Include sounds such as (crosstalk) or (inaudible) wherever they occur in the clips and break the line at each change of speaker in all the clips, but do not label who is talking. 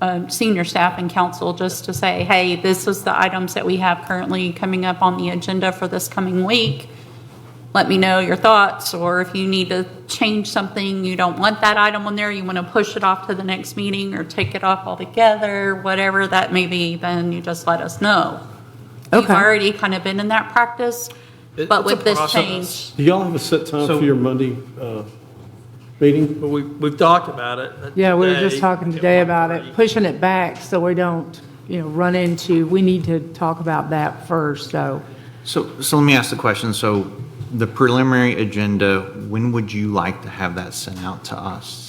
um, senior staff and council just to say, hey, this is the items that we have currently coming up on the agenda for this coming week. Let me know your thoughts, or if you need to change something, you don't want that item on there, you want to push it off to the next meeting or take it off altogether, whatever that may be, then you just let us know. We've
Okay.
already kind of been in that practice,
It-
but
it's a
with this
process.
change.
Do y'all have a set time
So-
for your Monday uh, meeting?
But we, we've talked about it.
Yeah, we were just talking
at
today about it,
1:30.
pushing it back so we don't, you know, run into, we need to talk about that first, so.
So, so let me ask the question. So the preliminary agenda, when would you like to have that sent out to us?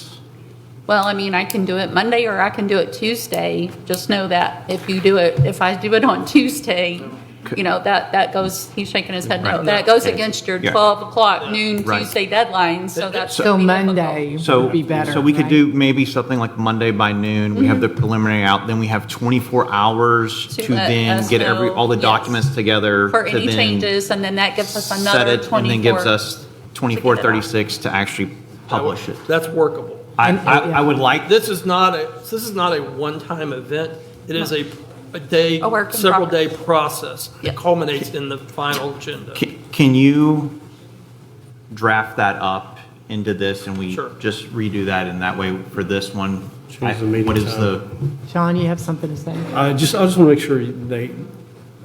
Well, I mean, I can do it Monday or I can do it Tuesday. Just know that if you do it, if I do it on (laughs) Tuesday, you know, that, that goes, he's shaking his head no.
Right.
That goes
Yeah.
against your
Yeah.
12 o'clock noon
Right.
Tuesday deadline, so that's.
So
gonna be difficult.
Monday
So,
would be better.
so we could
right? Mm-hmm.
do maybe something like Monday by noon. We have the preliminary out, then we have 24 hours
To
to
let
then
us
get every,
know,
all the
yes.
documents together.
For
to
any
then
changes, and then that gives us
Set
another
it and then gives
24.
us 24, 36 to actually publish it.
That's workable.
I,
And-
I, I would like,
This is not a, this is not a one-time event. It is a, a day,
A work in
several-day process.
Yeah.
It culminates in the final agenda.
Can- Can you draft that up into this and we
Sure.
just redo that and that way for this one? I-
Choose the meeting
What is
time.
the,
Sean, you have something to say?
I just, I just want to make sure they,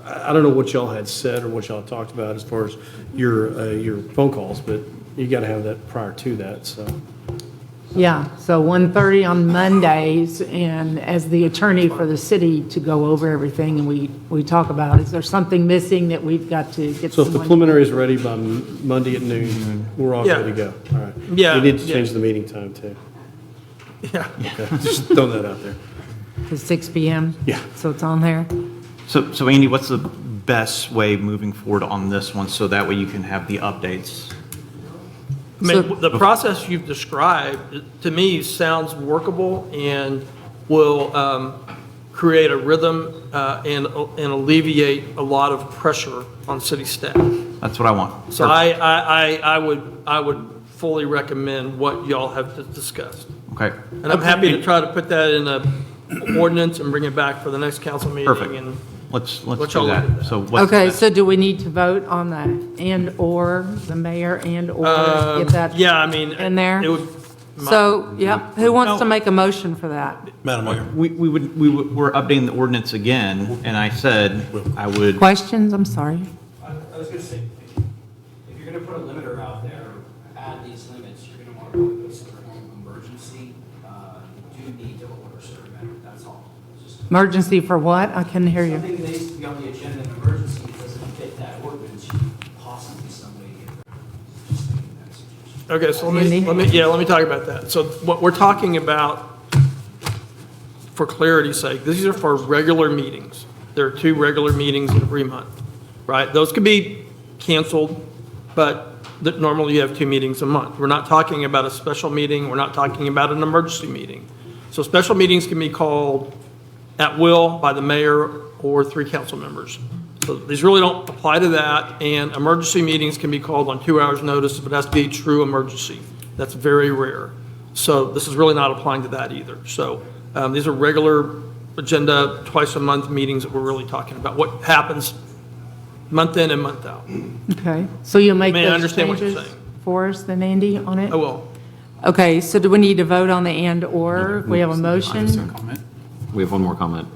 I I don't know what y'all had said or what y'all talked about as far as your, uh, your phone calls, but you got to have that prior to that, so.
Yeah, so 1:30 on Mondays, and as the attorney for the city to go over everything and we, we talk about, is there something missing that we've got to get
So if the
someone?
preliminary is ready by M- Monday at noon, we're all good to go. All right.
Yeah,
We need to
yeah.
change the meeting
(laughs)
time too.
Yeah.
Okay, Just throw that out there.
To 6 PM?
Yeah.
So it's on there?
so, so Andy, what's the best way moving forward on this one so that way you can have the updates?
I mean, the process you've described, to me, sounds workable and will um, create a rhythm uh, and and alleviate a lot of pressure on city staff.
That's what I want.
So I, I, I- I would, I would fully recommend what y'all have discussed.
Okay,
And I'm happy to try to put that in a ordinance and bring it back for the next council meeting.
perfect.
and-
Let's,
What
let's
y'all
do
want
that.
to do?
So what's the
Okay,
best-
so do we need to vote on the and/or, the mayor and/or,
Um,
if that's?
Yeah, I mean. uh,
in there?
It would,
So, yeah, who wants to make a motion for that?
Madam Mayor.
We, we would, we would- we're updating the ordinance again and I said I would,
Questions, I'm sorry.
I I was gonna say, if you're gonna put a limiter out there, add these limits, you're gonna wanna put a certain emergency, uh, you do need to order a certain matter, that's all. It's just-
Emergency for what? I couldn't hear you.
Something that needs to be on the agenda, an emergency doesn't fit that ordinance, you possibly somebody get rid of it. Just thinking that suggestion.
Okay, so let me,
Andy?
let me, yeah, let me talk about that. So what we're talking about, for clarity's sake, these are for regular meetings. There are two regular meetings in every month, right? Those could be canceled, but that normally you have two meetings a month. We're not talking about a special meeting, we're not talking about an emergency meeting. So special meetings can be called at will by the mayor or three council members. So these really don't apply to that, and emergency meetings can be called on two hours' notice, but it has to be a true emergency. That's very rare. So this is really not applying to that either. So um, these are regular agenda, twice-a-month meetings that we're really talking about, what happens month in and month out.
Okay, so you'll make
May I
those
understand what you're
changes
saying?
for us, then Andy, on it?
Oh, well,
Okay, so do we need to vote on the and/or? We have a motion?
We have one more comment.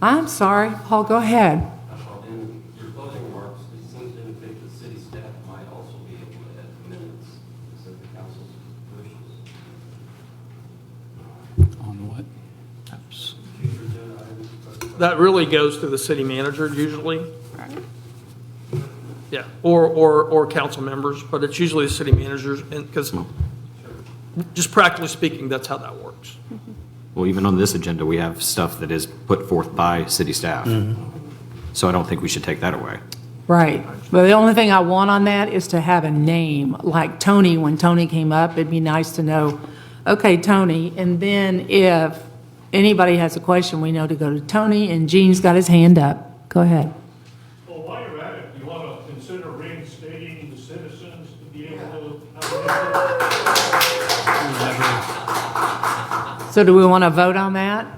I'm sorry, Paul, go ahead.
Well, in your closing remarks, it seems to indicate that city staff might also be able to add minutes, is that the council's wishes?
that really goes through the city manager usually. Yeah, or, or, or council members, but it's usually the city managers, and, because, just practically speaking, that's how that works.
Well, even on this agenda, we have stuff that is put forth by city staff. So I don't think we should take that away.
Right, but the only thing I want on that is to have a name, like Tony, when Tony came up, it'd be nice to know, okay, Tony, and then if anybody has a question, we know to go to Tony, and Gene's got his hand up. Go ahead.
Well, while you're at it, you want to consider reinstating the citizens to be able to have an input?
So do we want to vote on that?